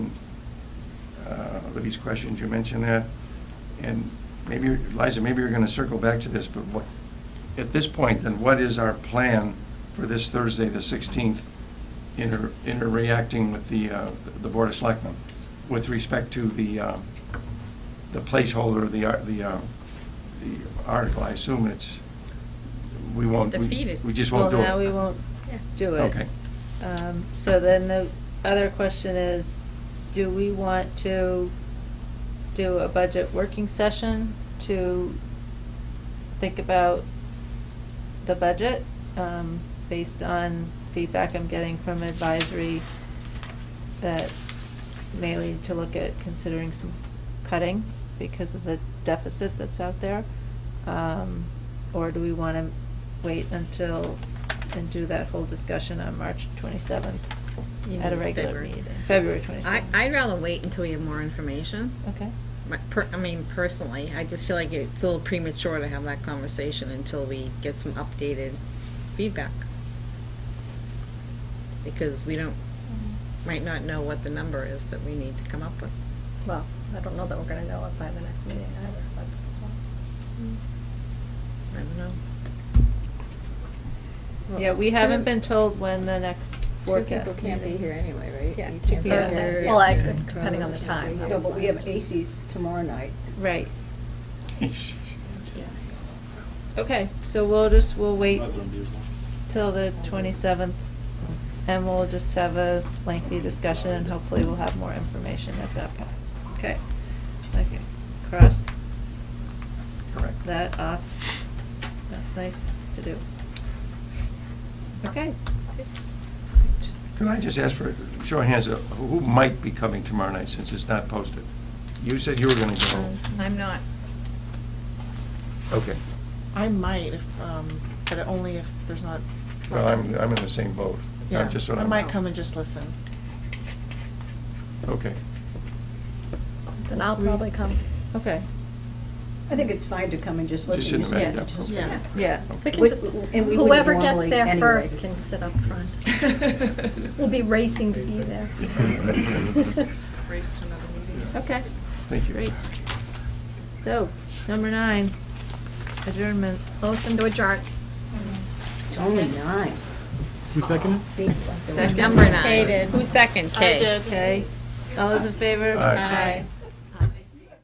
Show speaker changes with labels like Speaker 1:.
Speaker 1: Libby's uh, questions, you mentioned that. And maybe, you're- Liza, maybe you're going to circle back to this, but what, at this point, then what is our plan for this Thursday, the 16th, inter, interacting with the, uh, the Board of Selectmen with respect to the, uh, the placeholder, the, ar- the, uh, the article? I assume it's, we won't. we-
Speaker 2: Defeat it.
Speaker 1: We just won't do it.
Speaker 3: Well, now we won't
Speaker 2: Yeah.
Speaker 3: do it.
Speaker 1: Okay.
Speaker 3: Um, So then the other question is, do we want to do a budget working session to think about the budget um, based on feedback I'm getting from advisory that may lead to look at considering some cutting because of the deficit that's out there? Um, Or do we want to wait until, and do that whole discussion on March 27th
Speaker 2: You
Speaker 3: at a
Speaker 2: mean
Speaker 3: regular
Speaker 2: February.
Speaker 3: meeting? February
Speaker 2: I,
Speaker 3: 27th.
Speaker 2: I'd rather wait until we have more information.
Speaker 3: Okay,
Speaker 2: My- per- I mean, personally, I just feel like it's a little premature to have that conversation until we get some updated feedback. Because we don't,
Speaker 3: Mm-hmm.
Speaker 2: might not know what the number is that we need to come up with.
Speaker 4: Well, I don't know that we're gonna know it by the next meeting either, that's the
Speaker 2: I don't know.
Speaker 4: point.
Speaker 3: yeah, we haven't been told when the next forecast meeting.
Speaker 5: anyway,
Speaker 2: Yeah.
Speaker 5: You two
Speaker 2: Yeah.
Speaker 5: people are-
Speaker 4: Well, I,
Speaker 2: Yeah.
Speaker 4: depending on the time.
Speaker 5: No, but we have ACs tomorrow night.
Speaker 3: Right,
Speaker 2: Yes.
Speaker 3: okay, so we'll just, we'll wait
Speaker 6: Other than usual.
Speaker 3: till the 27th, and we'll just have a lengthy discussion, and hopefully we'll have more information at that point. Okay, okay, cross
Speaker 1: Correct.
Speaker 3: that off, that's nice to do. Okay.
Speaker 1: Could I just ask for, show of hands, uh, who might be coming tomorrow night since it's not posted? You said you were going to go.
Speaker 2: I'm not.
Speaker 1: Okay.
Speaker 7: I might, if, um, but only if there's not.
Speaker 1: Well, I'm, I'm in the same boat. I'm
Speaker 7: Yeah,
Speaker 1: just what
Speaker 7: I
Speaker 1: I'm-
Speaker 7: might come and just listen.
Speaker 1: Okay.
Speaker 4: Then I'll probably come.
Speaker 3: Okay,
Speaker 5: I think it's fine to come and just
Speaker 1: Just sit
Speaker 5: listen.
Speaker 1: in the back,
Speaker 5: You
Speaker 1: yeah,
Speaker 5: just-
Speaker 1: okay.
Speaker 7: Yeah.
Speaker 3: yeah.
Speaker 4: We can
Speaker 5: Which-
Speaker 4: just,
Speaker 5: and we would
Speaker 4: whoever gets
Speaker 5: normally
Speaker 4: there
Speaker 5: anyway.
Speaker 4: first can sit up front. We'll be racing to be there.
Speaker 7: Race to another meeting.
Speaker 3: Okay,
Speaker 1: Thank you.
Speaker 3: Great. so, number nine, adjournment.
Speaker 4: Motion to adjourn.
Speaker 5: It's only nine.
Speaker 8: Who seconded?
Speaker 5: See?
Speaker 3: Second.
Speaker 2: Number nine.
Speaker 4: Kaden.
Speaker 2: Who's second, Kay?
Speaker 3: Okay, all those in favor?
Speaker 1: Aye.
Speaker 2: Aye.